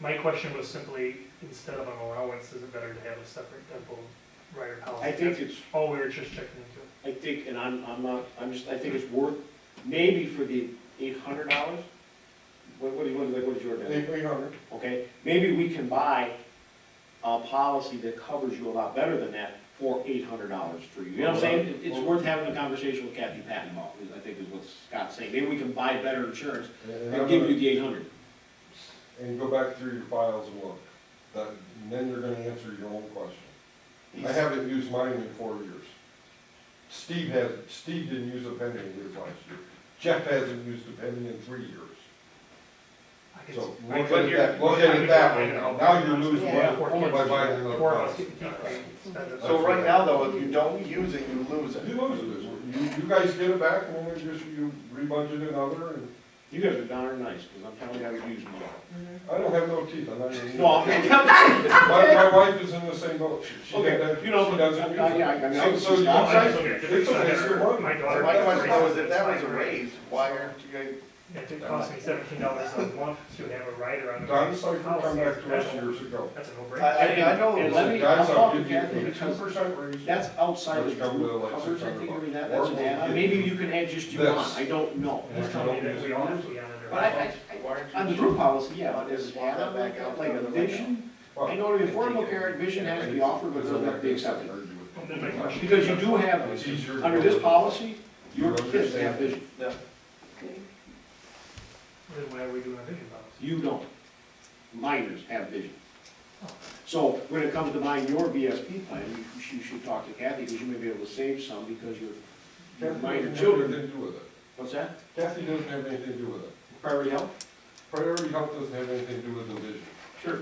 My question was simply, instead of an allowance, is it better to have a separate dental rider policy? I think it's, All Oh, we were just checking into. I think, and I'm, I'm not, I'm just, I think it's worth, maybe for the eight hundred dollars? What, what do you, what is, what is your bid? Eight hundred. Okay, maybe we can buy a policy that covers you a lot better than that for eight hundred dollars for you. You know what I'm saying? It- It's worth having a conversation with Kathy Patton about, is- I think is what Scott's saying. Maybe we can buy better insurance And I'm and give you gonna, the eight hundred. and go back through your files and look, that, and then you're gonna answer your own question. I haven't used mine in four years. Steve has, Steve didn't use a penny in his last year. Jeff hasn't used a penny in three years. I could- So I look could at hear- that- look I at could it that hear- way. I know. Now you're losing Yeah, money four by kids. buying another Four of car. us get to keep paying. Spend it. So right now, though, if you don't use it, you lose You it. lose it. You, you guys get it back, and then we just, you rebudget another, and You guys are darn nice, because I'm telling you, I would use them all. I don't have no teeth, I'm not even. No, I'm, My, my wife is in the same boat. She- she Okay, doesn't- you know, she but doesn't I- I- use it. I- I mean, So- I- so you I- guys- It's okay, it's it's okay, it's better. your money. My daughter. My question though is, if that was a It's raise, why aren't you guys, It did cost me seventeen dollars a month to have a rider on. the Don Cypher come policy. back to us years ago. That's a I, no-brainer. I I know. it And was- let me- Guys, I'll I'll talk give to you Kathy, a two because percent raise. That's outside of Which come with group like coverage, I 600 think, or bucks. that, that's Or an we'll add-on, get maybe you can add just you this. want, I don't know. They're telling me that we all have to be on it. But I, I, Why aren't I- on the you? group policy, yeah, but as an add-on, like, uh, like a vision, I know the Affordable Care Act vision has to be offered, but it doesn't have to be accepted. Then my question- Because you do have, It's easier. under this policy, your kids have vision, Then why are we doing a vision policy? you don't. Minors have vision. So when it comes to buying your VSP plan, you, you should talk to Kathy, because you may be able to save some because your- your minor children, Nothing to do with it. what's that? Kathy doesn't have anything to do with it. Priority health? Priority Health doesn't have anything to do with the vision. Sure.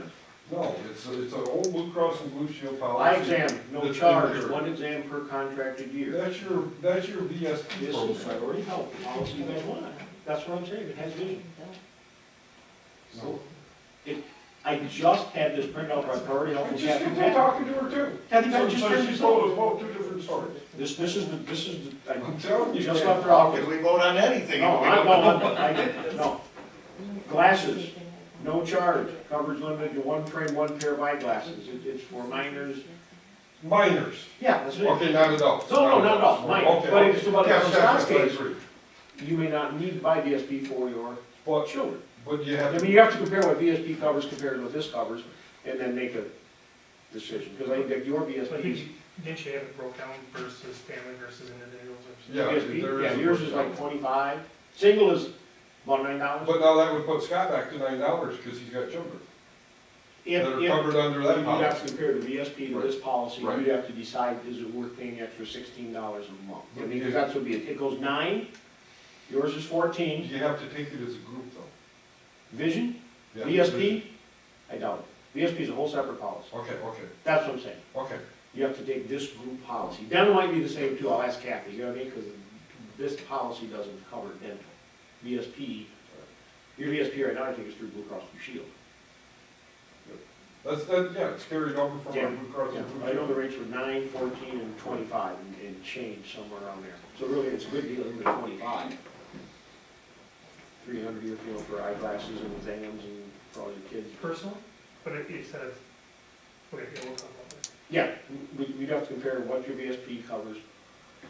No, it's, a- it's an old Blue Cross and Blue Shield Eye policy. exam, no That's charge, incurred. one exam per contracted year. That's your, that's your VSP This is program. priority health policy number one. That's what I'm saying, it has vision. No. I just had this printout by priority health. I from just Kathy kept on Patton. talking to her too. Kathy Patton So just so turned she this told over. us both two different stories. This, this is the, this is the, I I'm telling you. just man. left her How office. could we vote on anything? No, if we I, don't- no, I, I- no, Glasses. no charge, coverage limited to one frame, one pair of eyeglasses. It- It's for minors. Minors. Yeah, that's it. Okay, not adults. No, no, not adults, Okay, minors. okay. But it's about Yeah, adults. that's- Scott's that's what I case. agree. You may not need to buy VSP for your But, children. but you I have, mean, you have to compare what VSP covers compared to what this covers, and then make a decision, because I think that your So I think VSP, you- Didn't you have it broke down versus family versus individuals or something? Yeah, there VSP, is yeah, a yours is like twenty-five, single is about nine dollars. but now that would put Scott back to nine dollars because he's got children If, that are if, covered under you'd that have policy. to compare the VSP to this policy, Right. you'd have to decide, is it worth paying extra sixteen dollars a month? I mean, Okay. because that's what be, it It goes nine, yours is fourteen, You have to take it as a group though. vision, Yeah. VSP, I doubt it, VSP is a whole separate policy, Okay, okay, that's what I'm saying. okay. you have to take this group policy. Dental might be the same too, I'll ask Kathy, you know what I mean, because this policy doesn't cover dental. VSP, uh, your VSP right now, I think is through Blue Cross Blue Shield. That's, that, yeah, it's carried over from Yeah, our Blue Cross Yeah, and I know Blue the rates were nine, fourteen, and twenty-five, and- and change somewhere around there. So really, it's a good deal, even at twenty-five. Three hundred a year field for eyeglasses and exams and for all your kids. Personal, but it, it says, okay, yeah, we'll talk about that. Yeah, we, we'd have to compare what your VSP covers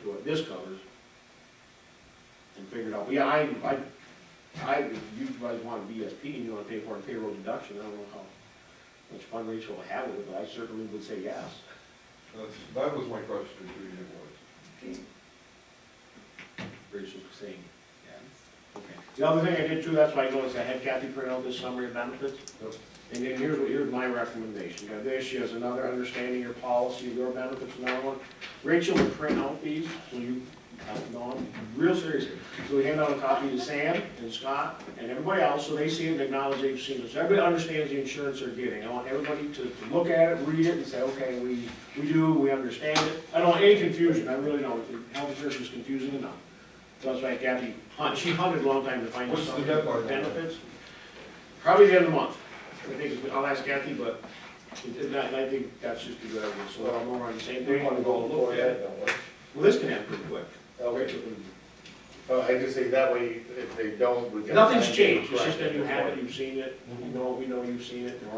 to what this covers and figure it out. But Yeah, I, I, I, if you guys want a VSP and you wanna pay for a payroll deduction, I don't know how much fund ratio will have with it, but I certainly would say yes. That's, that was my question to you, boys. Rachel's saying yes. Okay. The other thing I did too, that's why I noticed I had Kathy print out this summary of benefits. Yep. And then here's, what- here's my recommendation, now this is another understanding your policy, your benefits, another one. Rachel will print out these, so you, I'm going, real serious. So we hand out a copy to Sam and Scott and everybody else, so they see it and acknowledge they've seen it. So everybody understands the insurance they're getting. I want everybody to to look at it, read it, and say, okay, we, we do, we understand it. I don't want any confusion, I really don't, health insurance is confusing enough. So that's why Kathy, hunt- she hunted a long time to find What's the something deadline for on that? benefits. Probably the end of the month. I think, I'll ask Kathy, but it- it- I I think that's just a good idea, so I'm more on the same page. We want to go look at it. Well, this can happen pretty quick. Uh, Rachel can Well, I just say that way, if they don't, we can. Nothing's changed, it's just that you have it, you've seen it, we know, we know you've seen it, there are